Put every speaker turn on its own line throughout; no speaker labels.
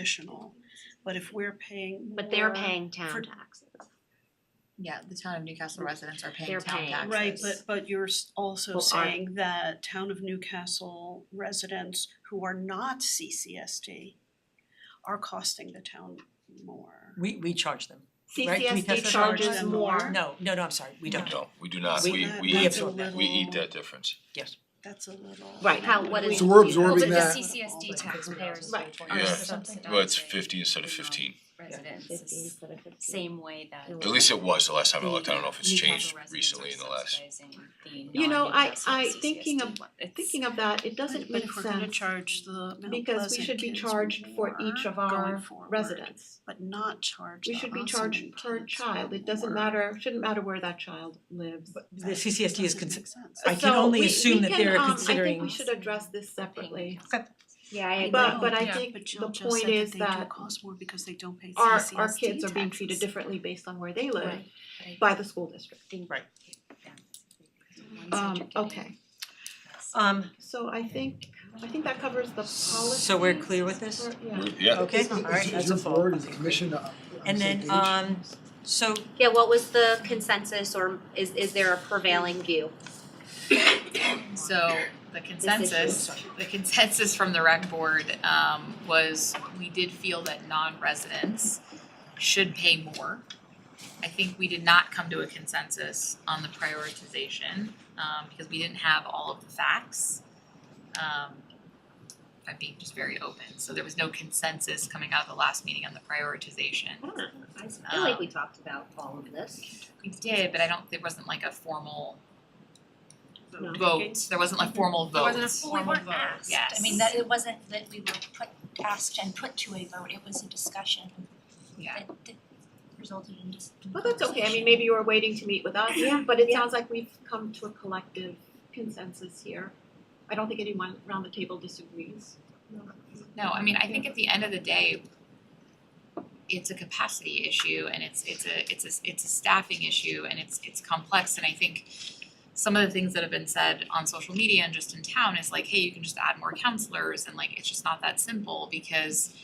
additional, but if we're paying
But they're
more-
paying town
for-
taxes.
Yeah, the town of Newcastle residents are paying
They're
town
paying.
taxes.
Right, but but you're s- also
Well, are-
saying that town of Newcastle residents who are not CCSD are costing the town more.
We we charge them. Right, can we
CCSD
test
charges
charge them
more.
more?
No, no, no, I'm sorry, we don't.
No, we do not.
We-
We,
That-
we
we, eat-
that's a
absorb that.
we eat
little-
that difference.
Yes.
That's a little.
Right, how- what is-
So we're
Well,
absorbing
But the
that.
CCSD taxpayers
Right.
are
Yeah.
subsidizing.
Well, it's fifty instead of fifteen.
Residents, same way that.
At least it was the last time I looked. I don't know if it's
Newcastle
changed
residents
recently
are
in the last.
subsidizing the
You know, I
non-Newcastle
I thinking of
CCSD. It's-
thinking of that,
But
it doesn't
but
make
if we're gonna
sense
charge the Mount
because we
Pleasant
should be
kids
charged for each
more
of our
going forward,
residents.
But not charge the
We should be
Ossining
charged per
kids
child. It doesn't
more.
matter, shouldn't matter where that child lives.
The CCSD is
Doesn't
considered,
make sense.
I can
So
only
we-
assume
we
that
can,
they're
um, I think
considering-
we should address this separately.
Yeah, I agree.
But but I
Yeah.
think
Oh, But
the
Jill just
point
said
is
that they do
that
cost more because they don't pay
our
CCSD
our kids are being treated
taxes.
differently based on where they live
Right. But I
by the school district.
think-
Right.
Yeah. One's
Um
educating.
okay,
um,
so I think I think that covers the policy.
so we're clear with this?
Or- yeah.
We- Yeah,
Okay,
Is-
all right,
Is- is
that's a
your
vote.
board and commission on on the
And
same
then,
page?
um, so
Yeah, what was the consensus or is is there a prevailing view?
So the consensus, the consensus from the rec board um was we did feel that non-residents should pay more. I think we did not come to a consensus on the prioritization um because we didn't have all of the facts. Um if I'm being just very open, so there was no consensus coming out of the last meeting on the prioritization.
I feel like we talked about all of this.
We did, but I don't, there wasn't like a formal
No.
vote, there wasn't like formal vote.
There wasn't a formal vote,
yes.
I mean, that it wasn't that we were put, asked and put to a vote, it was a discussion
Yeah.
that that resulted in just.
Well, that's okay, I mean, maybe you were waiting to meet with us, but it sounds like we've come to a collective consensus here. I don't think anyone around the table disagrees.
No, I mean, I think at the end of the day, it's a capacity issue and it's it's a it's a it's a staffing issue and it's it's complex and I think some of the things that have been said on social media and just in town is like, hey, you can just add more counselors and like it's just not that simple because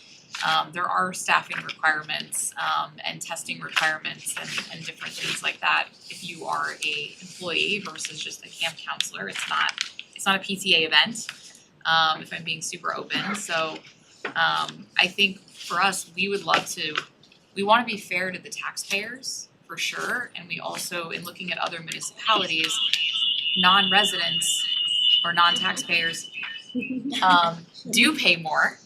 um there are staffing requirements um and testing requirements and and different things like that. If you are a employee versus just a camp counselor, it's not it's not a PTA event, um, if I'm being super open. So um, I think for us, we would love to, we wanna be fair to the taxpayers for sure. And we also, in looking at other municipalities, non-residents or non-taxpayers um, do pay more.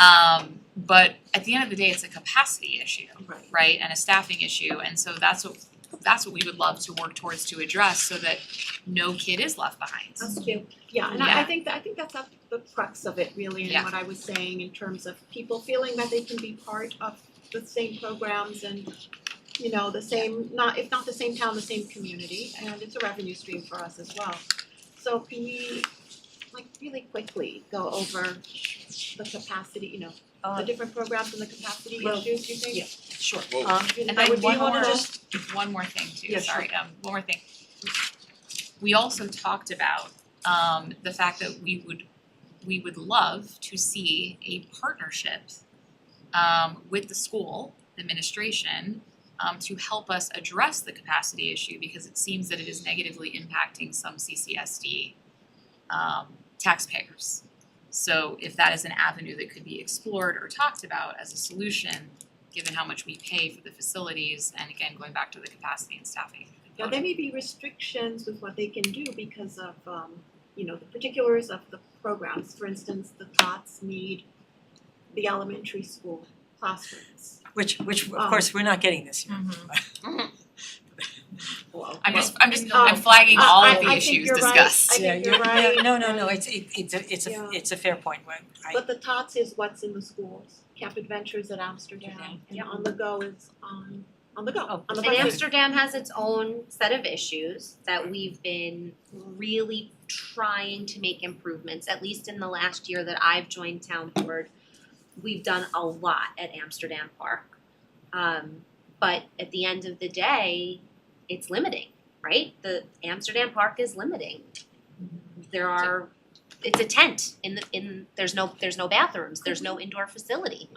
Um, but at the end of the day, it's a capacity issue
Right.
right, and a staffing issue, and so that's what that's what we would love to work towards to address so that no kid is left behind.
Us too. Yeah, and I I
Yeah.
think that, I think that's up the crux of it really, and
Yeah.
what I was saying in terms of people feeling that they can be part of the same programs and you know, the same, not, if not the same town, the same community, and it's a revenue stream for us as well. So can we, like, really quickly go over the capacity, you know,
Uh,
the different programs and the capacity
Well,
issues, you think?
yeah. sure.
Well,
Um,
And
That
then
would be
one more,
helpful.
one more thing too,
Yeah, sure.
sorry, um, one more thing. We also talked about um the fact that we would, we would love to see a partnership um with the school administration um to help us address the capacity issue because it seems that it is negatively impacting some CCSD um taxpayers. So if that is an avenue that could be explored or talked about as a solution, given how much we pay for the facilities, and again, going back to the capacity and staffing.
Now, there may be restrictions with what they can do because of, um, you know, the particulars of the programs. For instance, the tots need the elementary school classrooms.
Which which of
Um,
course, we're not getting this year.
Well,
I'm just, I'm just,
Um,
I'm flagging all of
I- I- I
the
think
issues
you're right.
discussed.
I
Yeah,
think
you-
you're right.
yeah, No, no, no, it's it it's a it's
Yeah.
a it's a fair point, right? I
But the tots is what's in the schools. Camp Adventures at Amsterdam and On the Go is on, on the go,
Oh,
on the
and
bus.
And Amsterdam has its own set of issues that we've been really trying to make improvements, at least in the last year that I've joined town board. We've done a lot at Amsterdam Park. Um, but at the end of the day, it's limiting, right? The Amsterdam Park is limiting. There are, it's a tent in the, in, there's no, there's no bathrooms, there's no indoor facility.